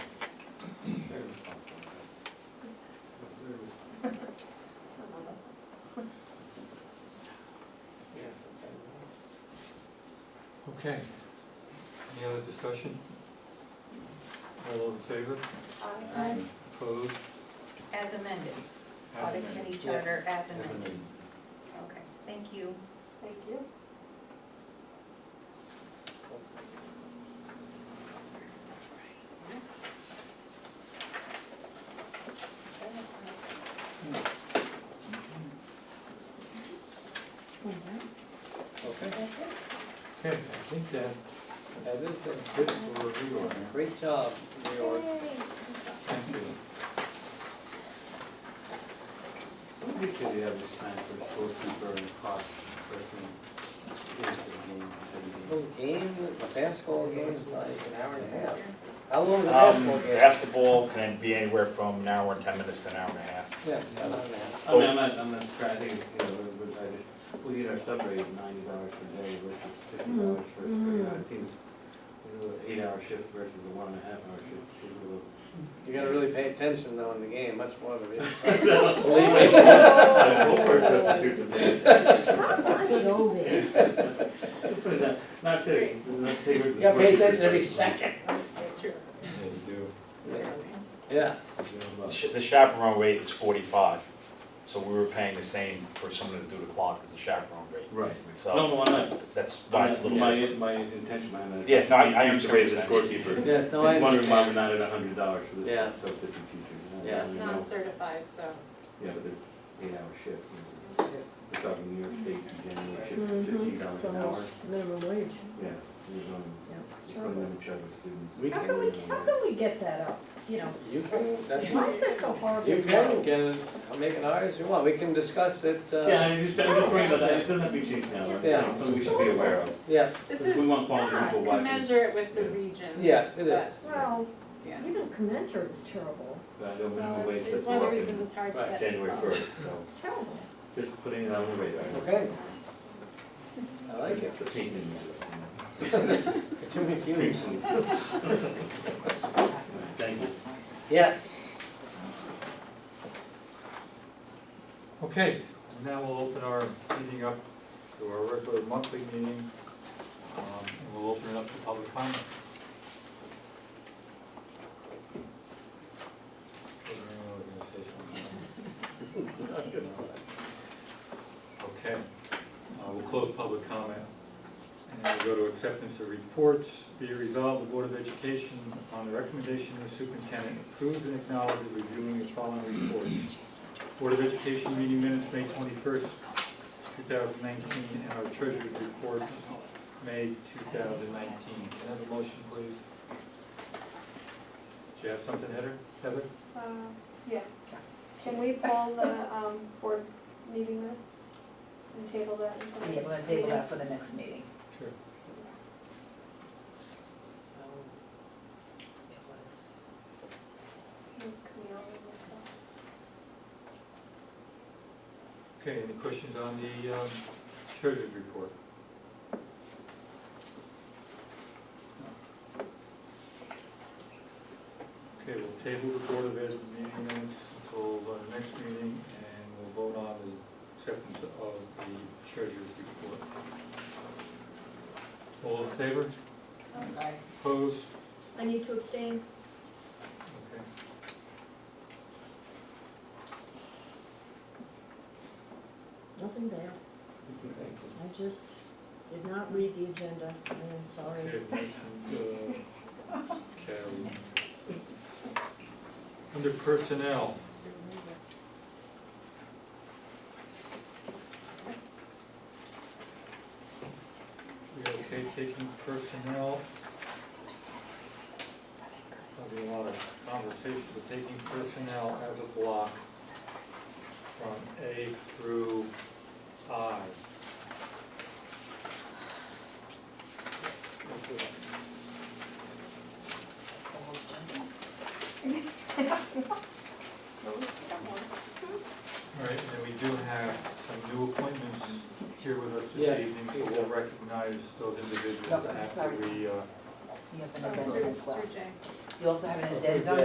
Okay. Any other discussion? All those in favor? Opposed? As amended, As audit amended. committee charter as As amended. amended. Okay, thank you. Thank you. Okay, Okay, I think that, that is a bit for review on there. great job, New York. Thank you. What do you say the average time for a storekeeper and clock person? Little game, a basketball game is like an hour and a half. How long is a Um, basketball game? Basketball can be anywhere from an hour and 10 minutes to an hour and a half. Yeah, an hour and a half. I mean, I'm not, I'm not sure, I think it's, you know, we- we- I just, we get our sub rate of ninety dollars per day versus fifty dollars for, a you know, it seems, you know, eight hour shift versus a one and a half hour shift, seems a little. You gotta really pay attention though in the game, much more than it is. Believe me. Yeah, Four more substitutes a day. Good old days. Put it down. Not today, not today. You gotta pay attention every second. That's true. Yes, do. Yeah, The sh- The chaperone rate is 45, so we were paying the same for someone to do the clock as the chaperone rate. Right. No, So no, I'm not, that's why it's a my, little my, bit. my intention behind that. is- Yeah, no, I- I He's the understand way what the you're scorekeeper. yes, no, I He's wondering why we're understand. not at a hundred dollars for Yeah. this substitute teacher. Yeah. Non-certified, so. Yeah, but they're eight hour shift. you know, it's- We're talking New York State, Mm-hmm. generally shift fifteen dollars It's an hour. almost minimum wage. Yeah. He's on, Yeah, it's he's terrible. putting them in charge of students. We How can we, how can we get that up, you know? You can, that's, Why is it so horrible? you can get it, I'll make an hour as you want, we can discuss it, Yeah, uh, I just, I'm just worried about that. It doesn't have to be changed now. but it's Yeah. Something we should be aware of. yeah, This We is want quality not people to watching. measure it with the region. yes, it but- is. Well, Yeah. even commensurate is terrible. But I don't know Well, the way Uh, It's it's one of the working. reasons it's hard to Right, get. January some. first, so It's terrible. just putting it on the radar. Okay, I like it. The paint in there. It's too confusing. Thank you. Yes. Okay, and now we'll open our meeting up to our regular monthly meeting. Um, and we'll open it up to public comment. Whether anyone was gonna say something. Okay, uh, we'll close public comment. And we'll go to acceptance of reports. Be it resolved, the Board of Education, on the recommendation of the superintendent, approves and acknowledges reviewing the following reports. Board of Education meeting minutes, May twenty-first, two thousand nineteen, and our treasurer's report, May two thousand nineteen. Can I have a motion, please? Do you have something, Heather? Heather? Uh, Yeah. Can we pull the um, board meeting minutes and table that until the Yeah, next we'll meeting? table that for the next meeting. Sure. So, it was. It's Camille and myself. Okay, any questions on the um, treasurer's report? Okay, we'll table the Board of Ed meeting minutes until the next meeting, and we'll vote on the acceptance of the treasurer's report. All in favor? Aye. Opposed? I need to abstain. Okay. Nothing there. I just did not read the agenda. I am sorry. Okay, motion, uh, carried. Under personnel, We okay taking personnel? There'll be a lot of conversation, but taking personnel as a block from A through I. Oh, All right, and we do have some new appointments here with us Yeah. this evening, so we'll recognize those individuals Okay, after sorry. we, uh, You have an Oh, addendum through- as well. through Jay. You also have an Okay, addendum